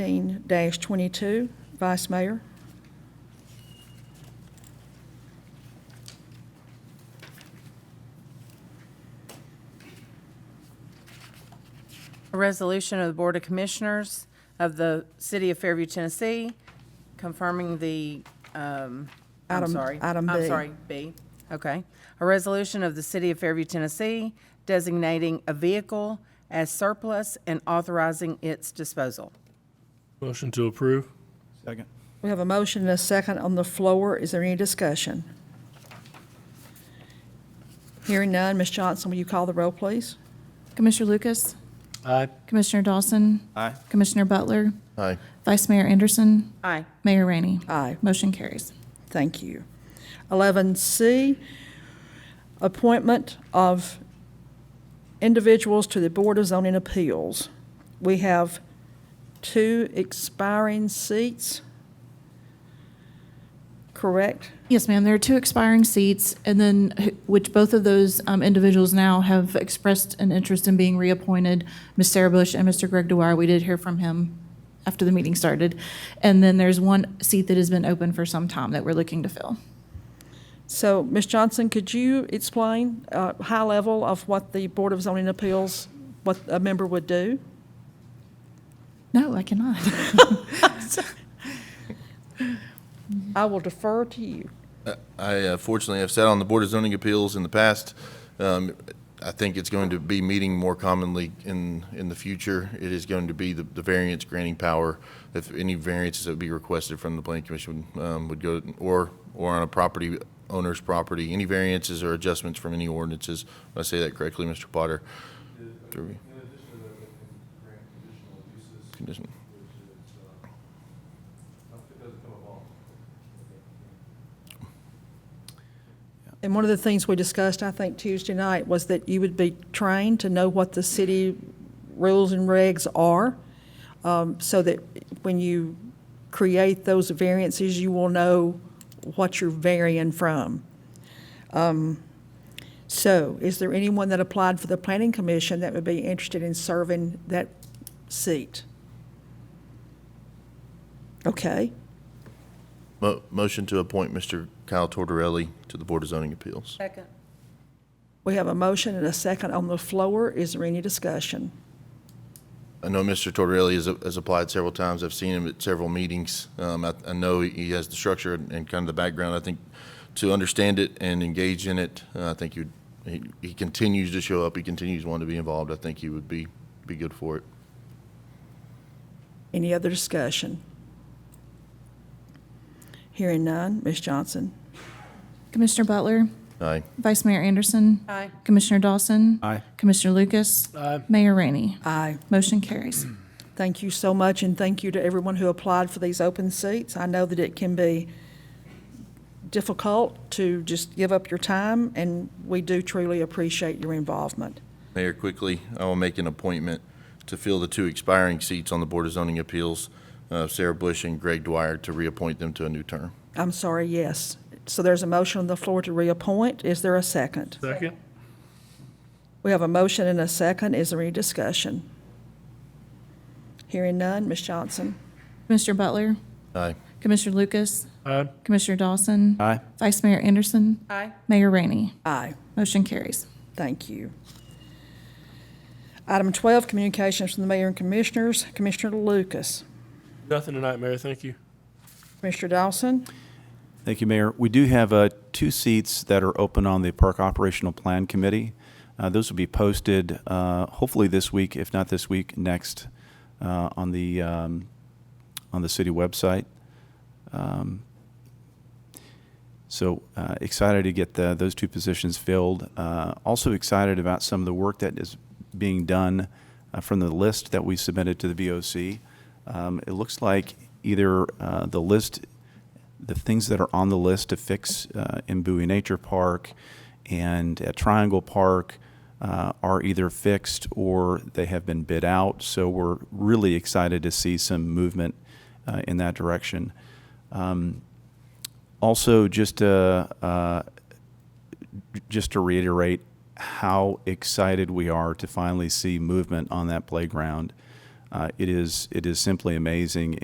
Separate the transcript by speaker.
Speaker 1: 19-22, Vice Mayor.
Speaker 2: A resolution of the Board of Commissioners of the City of Fairview, Tennessee, confirming the, um, I'm
Speaker 1: Item-
Speaker 2: sorry.
Speaker 1: item B.
Speaker 2: I'm sorry, B, okay. A resolution of the City of Fairview, Tennessee, designating a vehicle as surplus and authorizing its disposal.
Speaker 3: Motion to approve.
Speaker 4: Second.
Speaker 1: We have a motion and a second on the floor. Is there any discussion? Hearing none, Ms. Johnson, will you call the roll, please?
Speaker 5: Commissioner Lucas,
Speaker 3: Aye.
Speaker 5: Commissioner Dawson,
Speaker 4: Aye.
Speaker 5: Commissioner Butler,
Speaker 6: Aye.
Speaker 5: Vice Mayor Anderson,
Speaker 2: Aye.
Speaker 5: Mayor Rainey.
Speaker 1: Aye.
Speaker 5: Motion carries.
Speaker 1: Thank you. 11C, appointment of individuals to the Board of Zoning Appeals. We have two expiring seats, correct?
Speaker 5: Yes, ma'am, there are two expiring seats, and then, wh- which both of those um, individuals now have expressed an interest in being reappointed, Ms. Sarah Bush and Mr. Greg Dewar. We did hear from him after the meeting started. And then there's one seat that has been open for some time that we're looking to fill.
Speaker 1: So, Ms. Johnson, could you explain, uh, high level of what the Board of Zoning Appeals, what a member would do?
Speaker 5: No, I cannot.
Speaker 1: I will defer to you.
Speaker 6: I uh, fortunately have sat on the Board of Zoning Appeals in the past. Um, I think it's going to be meeting more commonly in, in the future. It is going to be the, the variance granting power. If any variances that would be requested from the planning commission um, would go, or, or on a property owner's property, any variances or adjustments from any ordinances. Did I say that correctly, Mr. Potter? Through me. Condition.
Speaker 1: And one of the things we discussed, I think Tuesday night, was that you would be trained to know what the city rules and regs are, um, so that when you create those variances, you will know what you're varying from. Um, So is there anyone that applied for the planning commission that would be interested in serving that seat? Okay,
Speaker 6: Mo- Motion to appoint Mr. Kyle Tortorelli to the Board of Zoning Appeals.
Speaker 2: Second.
Speaker 1: we have a motion and a second on the floor. Is there any discussion?
Speaker 6: I know Mr. Tortorelli has, has applied several times. I've seen him at several meetings. Um, I, I know he has the structure and and kind of the background. I think to understand it and engage in it, uh, I think you, he, he continues to show up. He continues wanting to be involved. I think he would be, be good for it.
Speaker 1: Any other discussion? Hearing none, Ms. Johnson.
Speaker 5: Commissioner Butler,
Speaker 6: Aye.
Speaker 5: Vice Mayor Anderson,
Speaker 2: Aye.
Speaker 5: Commissioner Dawson,
Speaker 4: Aye.
Speaker 5: Commissioner Lucas, Mayor Rainey.
Speaker 1: Aye.
Speaker 5: Motion carries.
Speaker 1: Thank you so much, and thank you to everyone who applied for these open seats. I know that it can be difficult to just give up your time, and we do truly appreciate your involvement.
Speaker 6: Mayor, quickly, I will make an appointment to fill the two expiring seats on the Board of Zoning Appeals, uh, Sarah Bush and Greg Dwyer, to reappoint them to a new term.
Speaker 1: I'm sorry, yes. So there's a motion on the floor to reappoint. Is there a second?
Speaker 3: Second.
Speaker 1: We have a motion and a second. Is there any discussion? Hearing none, Ms. Johnson.
Speaker 5: Commissioner Butler,
Speaker 6: Aye.
Speaker 5: Commissioner Lucas,
Speaker 3: Aye.
Speaker 5: Commissioner Dawson,
Speaker 4: Aye.
Speaker 5: Vice Mayor Anderson,
Speaker 2: Aye.
Speaker 5: Mayor Rainey.
Speaker 1: Aye.
Speaker 5: Motion carries.
Speaker 1: Thank you. Item 12, communications from the mayor and commissioners. Commissioner Lucas.
Speaker 3: Nothing tonight, Mayor. Thank you.
Speaker 1: Commissioner Dawson.
Speaker 4: Thank you, Mayor. We do have uh, two seats that are open on the Park Operational Plan Committee. Uh, Those will be posted uh, hopefully this week, if not this week, next uh, on the, um, on the city website. Um, So uh, excited to get the- those two positions filled. Uh, Also excited about some of the work that is being done uh, from the list that we submitted to the VOC. Um, It looks like either uh, the list the things that are on the list to fix uh, in Bowie Nature Park and at Triangle Park uh, are either fixed or they have been bid out. So we're really excited to see some movement uh, in that direction. Um, also, just to, uh, just to reiterate how excited we are to finally see movement on that playground. Uh, It is, it is simply amazing